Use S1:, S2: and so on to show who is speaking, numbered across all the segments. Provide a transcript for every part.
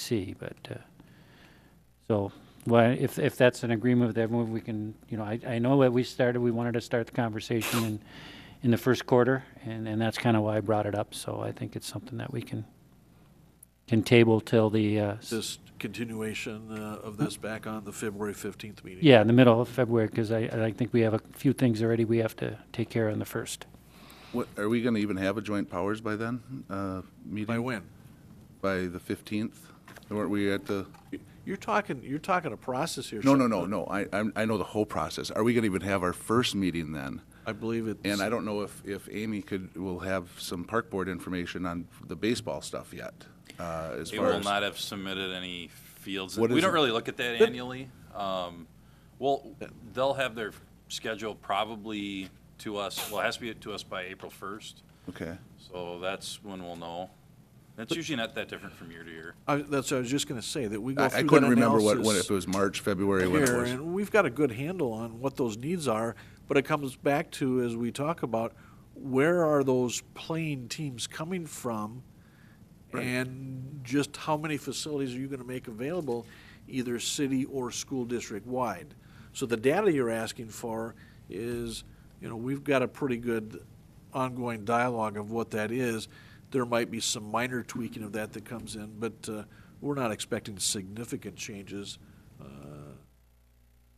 S1: see, but, uh, so, well, if, if that's an agreement with everyone, we can, you know, I, I know that we started, we wanted to start the conversation in, in the first quarter, and, and that's kind of why I brought it up, so I think it's something that we can, can table till the, uh, s-
S2: This continuation uh, of this back on the February 15th meeting.
S1: yeah, in the middle of February, because I, I think we have a few things already we have to take care of in the first.
S3: What, are we going to even have a joint powers by then? Uh,
S2: By
S3: meeting
S2: when?
S3: by the 15th? Weren't we at the,
S2: You're talking, you're talking a process here.
S3: no,
S2: sir.
S3: no, no, no. I, I'm- I know the whole process. Are we going to even have our first meeting then?
S2: I believe it's.
S3: And I don't know if, if Amy could, will have some park board information on the baseball stuff yet. uh, As
S4: They
S3: far
S4: will
S3: as,
S4: not have submitted any fields.
S3: What
S4: We
S3: is
S4: don't
S3: it?
S4: really look at that annually. Um, Well, they'll have their schedule probably to us, well, it has to be to us by April 1st,
S3: okay.
S4: so that's when we'll know. That's usually not that different from year to year.
S2: I- That's what I was just going to say, that we go
S3: I I
S2: through
S3: couldn't
S2: that
S3: remember what, what, if
S2: analysis
S3: it was March, February, when it
S2: here,
S3: was.
S2: and we've got a good handle on what those needs are, but it comes back to, as we talk about, where are those playing teams coming from? And just how many facilities are you going to make available, either city or school district wide? So the data you're asking for is, you know, we've got a pretty good ongoing dialogue of what that is. There might be some minor tweaking of that that comes in, but uh, we're not expecting significant changes. uh, or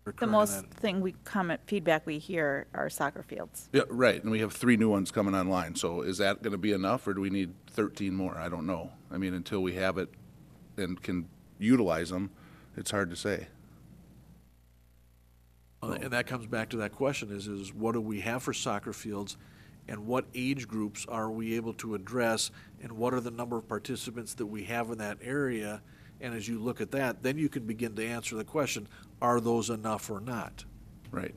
S5: The
S2: current
S5: most
S2: event.
S5: thing we comment, feedback we hear are soccer fields.
S3: Yeah, right, and we have three new ones coming online, so is that gonna be enough, or do we need thirteen more? I don't know. I mean, until we have it and can utilize them, it's hard to say.
S2: Uh, And that comes back to that question is, is what do we have for soccer fields? And what age groups are we able to address? And what are the number of participants that we have in that area? And as you look at that, then you can begin to answer the question, are those enough or not?
S3: Right,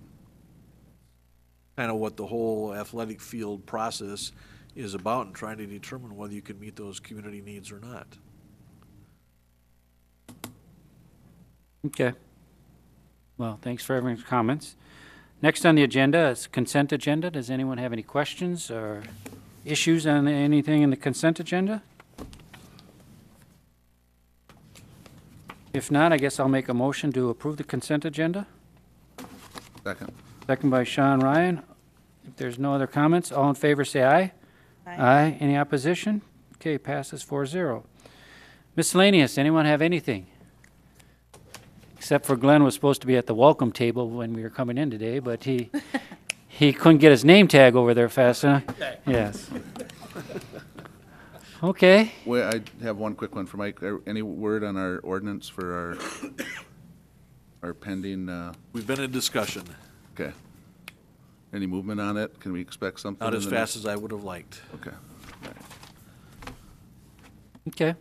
S2: Kind of what the whole athletic field process is about and trying to determine whether you can meet those community needs or not.
S1: Okay. Well, thanks for everyone's comments. Next on the agenda is consent agenda. Does anyone have any questions or issues on anything in the consent agenda? If not, I guess I'll make a motion to approve the consent agenda.
S3: second.
S1: Second by Sean Ryan. If there's no other comments, all in favor say aye. Aye. Any opposition? Okay, passes 4-0. Miscellaneous, anyone have anything? Except for Glenn was supposed to be at the welcome table when we were coming in today, but he, he couldn't get his name tag over there fast enough. Yes. Okay,
S3: Well, I have one quick one for Mike. Are- Any word on our ordinance for our, our pending, uh,
S2: We've been in discussion,
S3: okay. Any movement on it? Can we expect something?
S2: not
S3: in
S2: as
S3: the next-
S2: fast as I would have liked.
S3: Okay.
S1: okay.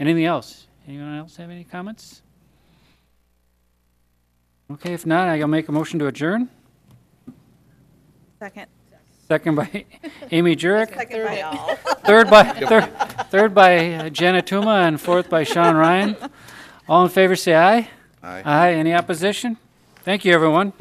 S1: Anything else? Anyone else have any comments? Okay, if not, I'll make a motion to adjourn.
S5: Second.
S1: Second by Amy Jurek,
S5: Second by all.
S1: third by, third, third by uh, Jenna Tuma, and fourth by Sean Ryan. All in favor, say aye.
S3: Aye.
S1: Aye, any opposition? Thank you, everyone.